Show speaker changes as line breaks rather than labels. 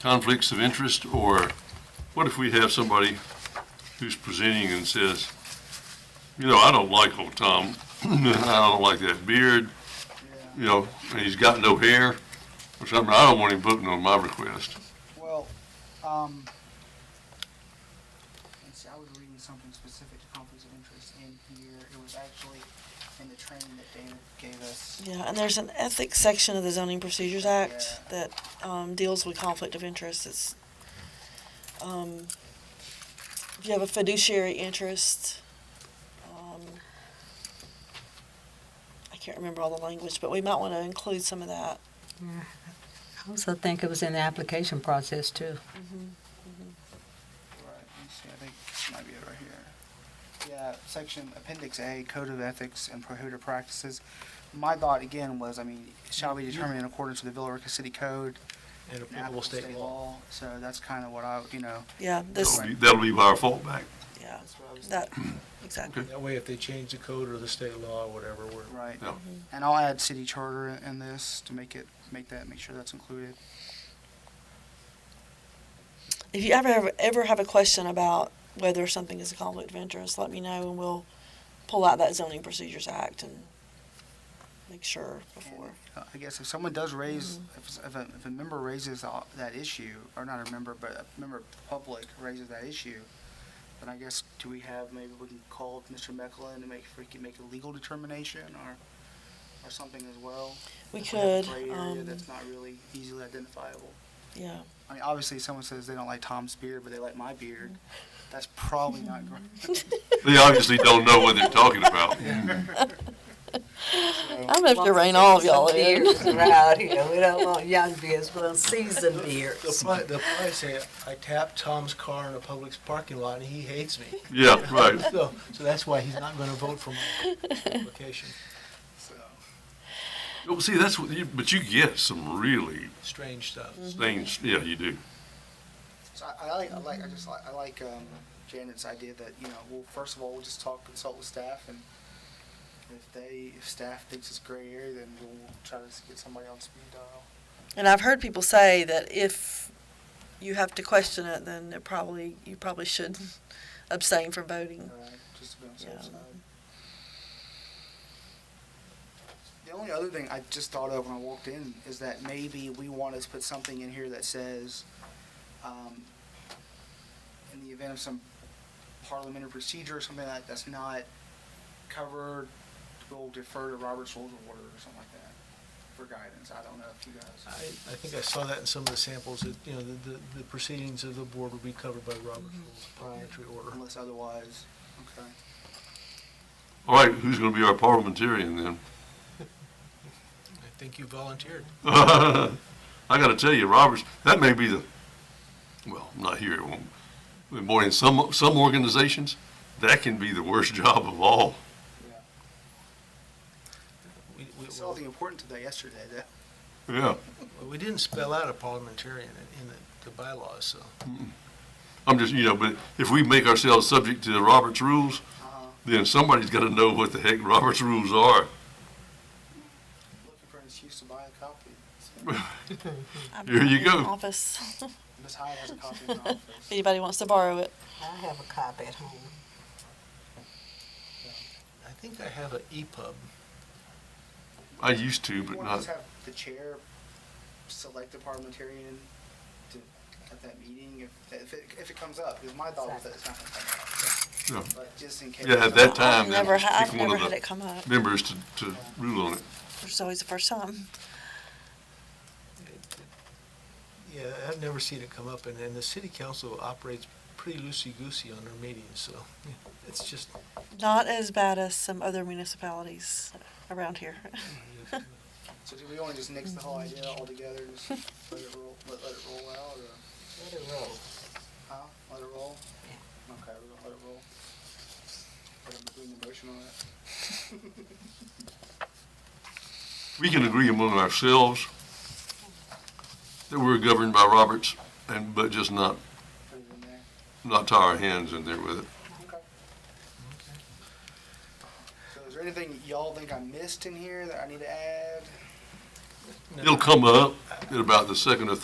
conflicts of interest, or what if we have somebody who's presenting and says, you know, I don't like old Tom, I don't like that beard, you know, and he's got no hair, or something, I don't want him voting on my request.
Well, um, let's see, I was reading something specific to conflicts of interest in here. It was actually in the training that David gave us.
Yeah, and there's an ethics section of the Zoning Procedures Act that um, deals with conflict of interest. It's, um, if you have a fiduciary interest, um, I can't remember all the language, but we might want to include some of that.
I also think it was in the application process too.
Right, let's see, I think this might be it right here. Yeah, section Appendix A, Code of Ethics and Prohibited Practices. My thought again was, I mean, shall be determined in accordance with the Villarica City Code
and
and
applicable
applicable
state law.
So that's kind of what I, you know,
Yeah, this,
That'll be- That'll be our fallback.
yeah,
that's what I was
that, exactly.
That way, if they change the code or the state law or whatever, we're,
Right.
Yeah.
And I'll add city charter in- in this to make it, make that, make sure that's included.
If you ever, ever, ever have a question about whether something is a conflict of interest, let me know and we'll pull out that Zoning Procedures Act and make sure before.
Uh, I guess if someone does raise,
Mm.
if, s- if a, if a member raises a- that issue, or not a member, but a member of the public raises that issue, then I guess, do we have, maybe we can call Mr. Mecklin to make, if we can make a legal determination or, or something as well?
We
If have a
could,
Gray area
um,
that's not really easily identifiable.
yeah.
I mean, obviously, someone says they don't like Tom's beard, but they like my beard.
Mm.
That's probably not great.
They obviously don't know what they're talking about.
I'm gonna have to rein all of y'all
Some
in.
beers around here. We don't want young beers, we want seasoned
the
beers.
pli, the pli say, I tapped Tom's car in a Publix parking lot and he hates me.
Yeah, right.
So, so that's why he's not gonna vote for my application. So,
Well, see, that's what, you- but you get some really
strange stuff.
things, yeah, you do.
So I, I like, I like, I just like, I like um, Janet's idea that you know, well, first of all, we'll just talk, consult with staff, and if they, if staff thinks it's gray area, then we'll try to get somebody on speed dial.
And I've heard people say that if you have to question it, then it probably, you probably should abstain from voting.
All right, just to be on the safe
Yeah.
side. The only other thing I just thought of when I walked in is that maybe we want to put something in here that says, um, in the event of some parliamentary procedure or something like that's not covered, we'll defer to Robert's rules of order or something like that for guidance. I don't know if you
I,
guys.
I think I saw that in some of the samples, that, you know, the, the- the proceedings of the board will be covered by Robert's rules, of parliamentary order.
Unless otherwise, okay.
All right, who's gonna be our parliamentarian then?
I think you volunteered.
I gotta tell you, Roberts, that may be the, well, not here, it won't. But boy, in some, some organizations, that can be the worst job of all.
Yeah.
We,
We saw the important today yesterday, though.
Yeah,
we, we didn't spell out a parliamentarian in, in the- the bylaws, so.
I'm just, you know, but if we make ourselves subject to the Roberts rules,
Uh-huh.
then somebody's gotta know what the heck Roberts rules are.
Looking for an excuse to buy a copy. So-
I've
Here you
got it in
go.
Office, if
Miss Hyde has a copy in her office.
anybody wants to borrow it.
I have a copy at home.
I think I have E an EPUB.
I used to,
You
but
want to
not,
just have the chair select a parliamentarian to, at that meeting if, if it, if it comes up? Because my thought was that it's not going to come
Yeah.
up. But just in case.
Yeah, at that
I've
time, then
Never,
just
ha- I've
pick one
never
of
had
the-
it come up.
members to, to rule on it.
It's always the first time.
Yeah, I've never seen it come up, and, and the city council operates pretty loosey-goosey on their meetings, so yeah, it's just,
Not as bad as some other municipalities around here.
So do we want to just nix the whole idea altogether? Just let it roll, let, let it roll out or
Let it roll.
how? Let it roll? Okay, we're going to let it roll. Put a- put an emotion on it.
We can agree among ourselves that we're governed by Roberts and, but just not,
Put it in there.
not tie our hands in there with it.
Okay. So is there anything y'all think I missed in here that I need to add?
no.
It'll come up at about the second or third